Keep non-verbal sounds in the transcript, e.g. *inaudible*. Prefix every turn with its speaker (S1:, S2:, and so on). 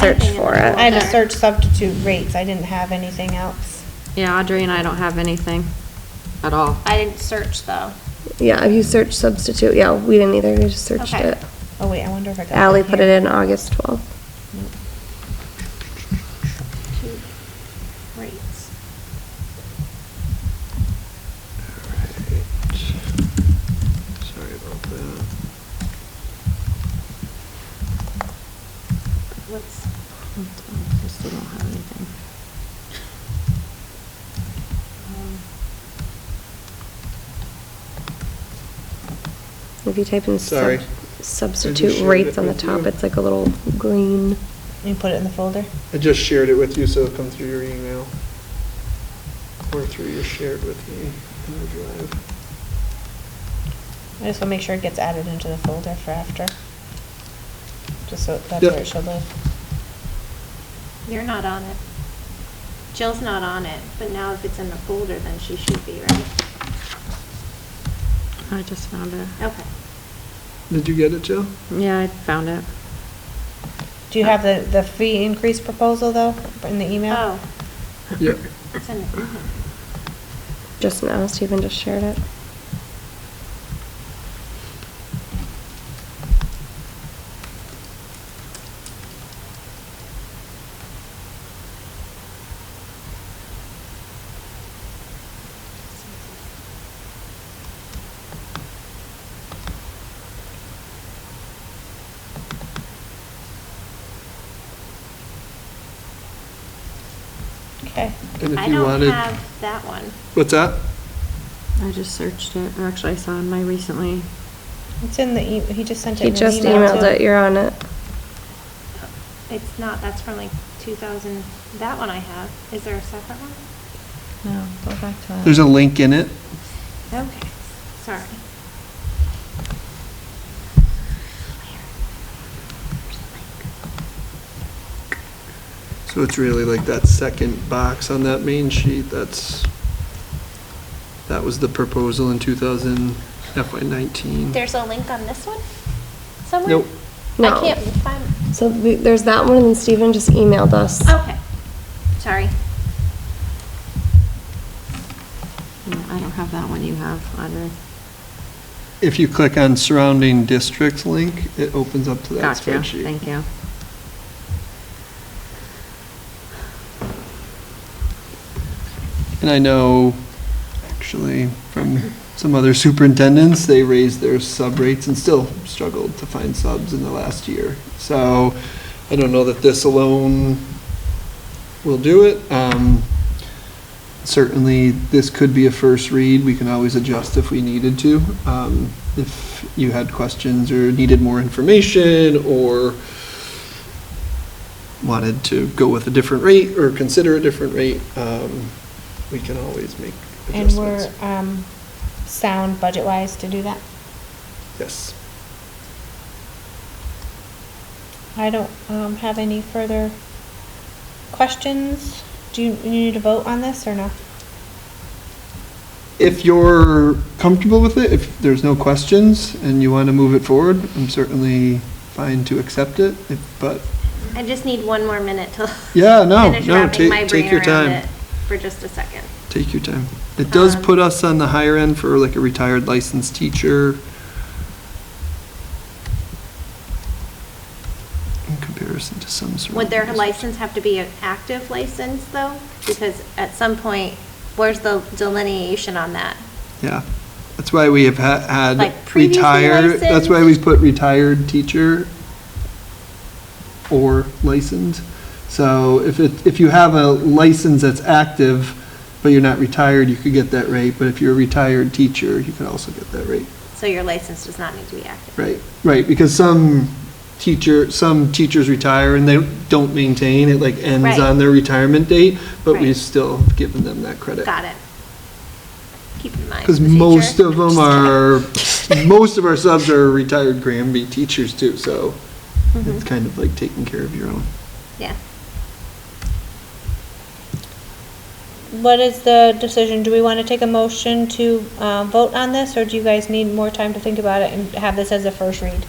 S1: search for it.
S2: I had to search substitute rates, I didn't have anything else.
S3: Yeah, Audrey and I don't have anything at all.
S1: I didn't search though.
S4: Yeah, if you search substitute, yeah, we didn't either, we just searched
S1: Okay.
S4: it.
S2: Oh wait, I wonder if I got. that
S4: Ally put it
S2: here.
S4: in
S2: Mm.
S4: August 12th.
S1: Two Rates.
S5: Sorry about that.
S1: What's,
S3: I still don't have anything.
S1: um,
S4: If you type in sub-
S5: Sorry. I just
S4: substitute
S5: shared
S4: rates
S5: it
S4: on the
S5: with
S4: top,
S5: you.
S4: it's like a little green.
S2: You put it in the folder?
S5: I just shared it with you, so it'll come through your email. Or through your shared with me in the drive.
S2: I just wanna make sure it gets added into the folder for after. Just so that's
S5: Yep.
S2: where it should live.
S1: You're not on it. Jill's not on it, but now if it's in the folder, then she should be, right?
S3: I just found it.
S1: Okay.
S5: Did you get it, Jill?
S3: Yeah, I found it.
S2: Do you have the, the fee increase proposal though, in the email?
S1: Oh,
S5: Yep.
S1: it's in the,
S4: Just now, Stephen just shared it.
S2: Okay.
S5: And if
S1: I
S5: you
S1: don't
S5: wanted,
S1: have that one.
S5: what's that?
S3: I just searched it. Or Actually, I saw in my recently.
S2: It's in the, e- he just sent it
S4: He
S2: in an email.
S4: just emailed
S2: too.
S4: it, you're on it.
S1: It's not, that's from like 2000, that one I have. Is there a separate one?
S2: No, go back to that.
S5: There's a link in it.
S1: Okay, sorry.
S5: Hmm. So it's really like that second box on that main sheet, that's, that was the proposal in 2000 FY '19.
S1: There's a link on this one somewhere?
S5: Nope.
S1: I
S4: No.
S1: can't find,
S4: So th- there's that one, and then Stephen just emailed us.
S2: Oh,
S1: okay, sorry.
S3: No, I don't have that one you have, Audrey.
S5: If you click on surrounding districts link, it opens up to that
S3: Gotcha.
S5: spreadsheet.
S3: Thank you.
S5: And I know, actually, from some other superintendents, they raised their sub rates and still struggled to find subs in the last year. So I don't know that this alone will do it. Um, Certainly, this could be a first read. We can always adjust if we needed to. Um, If you had questions or needed more information or wanted to go with a different rate or consider a different rate, um, we can always make
S2: And we're,
S5: adjustments.
S2: um, sound budget-wise to do that?
S5: Yes.
S2: I don't, um, have any further questions. Do you, you need to vote on this or no?
S5: If you're comfortable with it, if there's no questions and you want to move it forward, I'm certainly fine to accept it, if- but
S1: I just need one more minute to.
S5: Yeah,
S1: *laughs*
S5: no,
S1: finish
S5: no,
S1: wrapping
S5: take-
S1: my
S5: take
S1: brain
S5: your
S1: around
S5: time.
S1: it For just a second.
S5: take your time. It does
S1: Um,
S5: put us on the higher end for like a retired licensed teacher in comparison to some sort of.
S1: Would their license have to be an active license though? Because at some point, where's the delineation on that?
S5: Yeah, that's why we have ha-
S1: Like
S5: had
S1: previously
S5: retired, that's why we
S1: licensed?
S5: put retired teacher or licensed. So if it, if you have a license that's active, but you're not retired, you could get that rate, but if you're a retired teacher, you could also get that rate.
S1: So your license does not need to be active.
S5: Right, right, because some teacher, some teachers retire and they don't maintain, it like ends
S1: Right.
S5: on their retirement date, but
S1: Right.
S5: we've still given them that credit.
S1: Got it. Keep in mind.
S5: Because
S1: the future.
S5: most
S1: *laughs*
S5: of them
S1: Just
S5: are, *laughs* most of our subs are retired Granby teachers too, so it's kind of like taking care of your own.
S1: kidding. Mm-hmm. Yeah.
S2: What is the decision? Do we want to take a motion to, uh, vote on this, or do you guys need more time to think about it and have this as a first read?